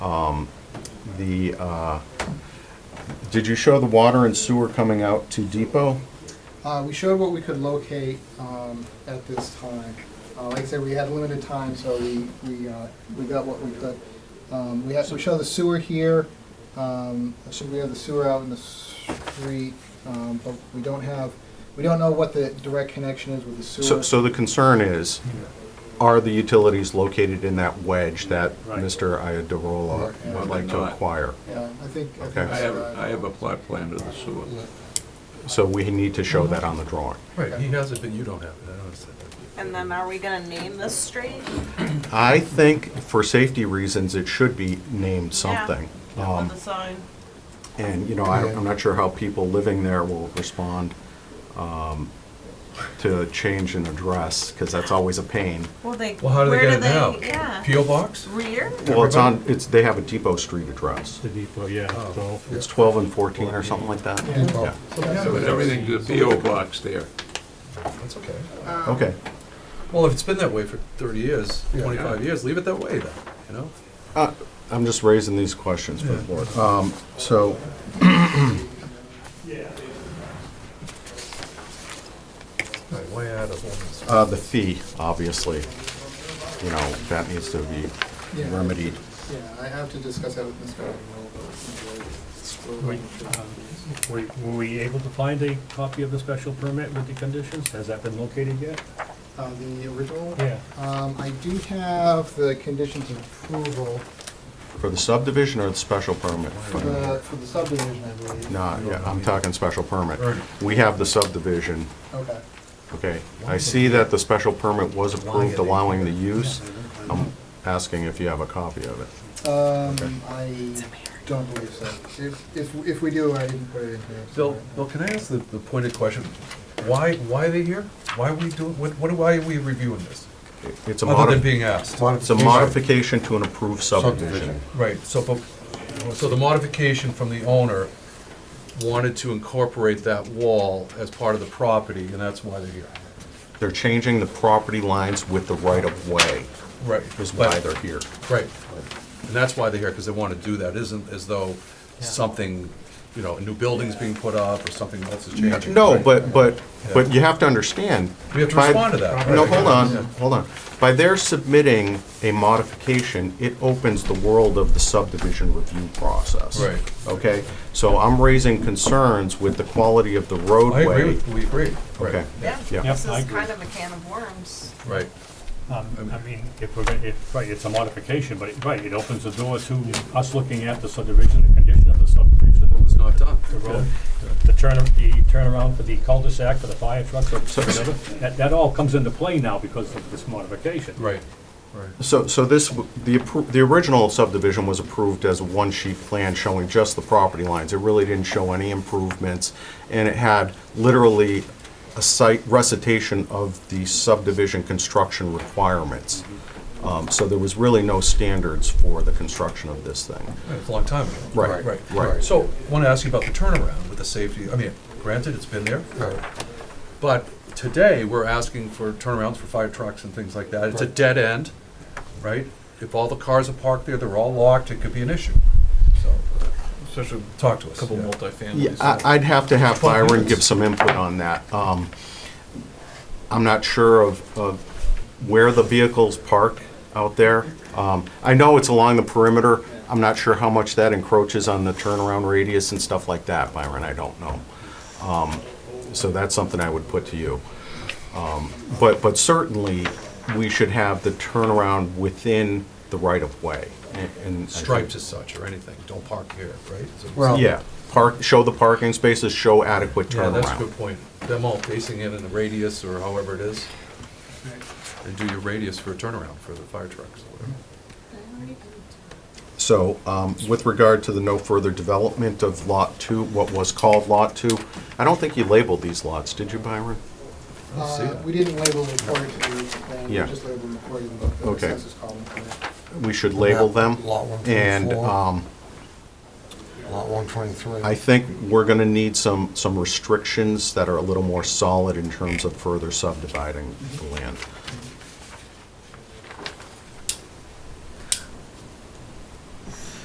The, uh, did you show the water and sewer coming out to Depot? Uh, we showed what we could locate, um, at this time. Uh, like I said, we had limited time, so we, we, uh, we got what we could. Um, we have, so we show the sewer here, um, so we have the sewer out in the street, um, but we don't have, we don't know what the direct connection is with the So, sewer. so the concern is, are the utilities located in that wedge that Right. Mr. Iadarolo Yeah. would like to Not. acquire? Yeah, I think, I think. Okay. I have, uh, I have a plot plan of the sewer. So we need to show that on the drawing. Right, he has it, but you don't have it, I don't understand that. And then are we gonna name this street? I think for safety reasons, it should be named something. On Um, the sign? And, you know, I- I'm not sure how people living there will respond um, to a change in address, because that's always a pain. Well, they, Well, how do they where get do it now? they, yeah. PO box? Rear? Well, it's on, it's, they have a Depot Street address. The depot, yeah, Oh. so, It's 12 and 14 or something like that. Yeah. So So- everything's a PO box there. That's okay. Okay. Well, if it's been that way for thirty years, Yeah. twenty-five years, leave it that way then, you know? Uh, I'm just raising these questions for the board. Um, So, Right, why add a whole? uh, the fee, obviously, you know, that needs to be Yeah. remedied. Yeah, I have to discuss that with Mr. Arnold. we, um, were, were we able to find a copy of the special permit with the conditions? Has that been located yet? Uh, the original? Yeah. Um, I do have the conditions of approval For the subdivision or the special permit? for the, for the subdivision, I believe. No, yeah, I'm talking special permit. Right. We have the subdivision, Okay. okay? I see that the special permit was approved allowing the use. I'm asking if you have a copy of it. Um, I don't believe so. If, if, if we do, I didn't put it in here. Bill, Bill, can I ask the, the pointed question? Why, why are they here? Why are we doing, what, what, why are we reviewing this? It's a Other than modi, being asked? it's a modification to an approved subdivision. Subdivision. Right, so, but- so the modification from the owner wanted to incorporate that wall as part of the property, and that's why they're here. They're changing the property lines with the right-of-way Right. is why they're here. Right, and that's why they're here, because they want to do that, isn't as though something, you know, a new building's being put up or something else is changing. No, but, but, but you have to understand. We have to by- respond to that, right? No, hold on, hold on. By their submitting a modification, it opens the world of the subdivision review process. Right. Okay, so I'm raising concerns with the quality of the I roadway. agree, with- we agree. Right, Okay. Yeah, Yeah. this Yep, I is agree. kind of a can of worms. Right, Um, I mean, if we're gonna, if, right, it's a modification, but, it- right, it opens the door to us looking at the subdivision, the condition of the subdivision. it was not done. The road, the turn, the turnaround for the cul-de-sac, for the fire trucks, or whatever, that, that all comes into play now because of this modification. Right, right, So, so this, w- the, appro- the original subdivision was approved as a one-sheet plan showing just the property lines. It really didn't show any improvements, and it had literally a site recitation of the subdivision construction requirements. Um, So there was really no standards for the construction of this thing. it's a long time ago. Right, right. Right, so, want to ask you about the turnaround with the safety, I mean, granted, it's been there, but today, we're asking for turnarounds for fire trucks and things like that, it's a dead end, right? If all the cars are parked there, they're all locked, it could be an issue, so, Especially talk to us. a couple yeah. Yeah, multifamilies. I- I'd have to have Byron give some input on that. Um, I'm not sure of, of where the vehicles park out there. Um, I know it's along the perimeter. I'm not sure how much that encroaches on the turnaround radius and stuff like that, Byron, I don't know. Um, So that's something I would put to you. Um, But, but certainly, we should have the turnaround within the right-of-way. and- and I think- stripes as such or anything, don't park here, right? So- Well- Yeah, park, show the parking spaces, show adequate Yeah, that's a good turnaround. point. Them all facing in in the radius or however it is, and do your radius for a turnaround for the fire trucks or whatever. So um, with regard to the no further development of Lot 2, what was called Lot 2, I don't think you labeled these lots, did you, Byron? Let's see Uh, that. we didn't label it according to the, plan, we Yeah. just labeled it according to the Okay. census column. We should label them. Lot 124. And um, Lot one twenty-three. I think we're going to need some, some restrictions that are a little more solid in terms of further subdividing the land.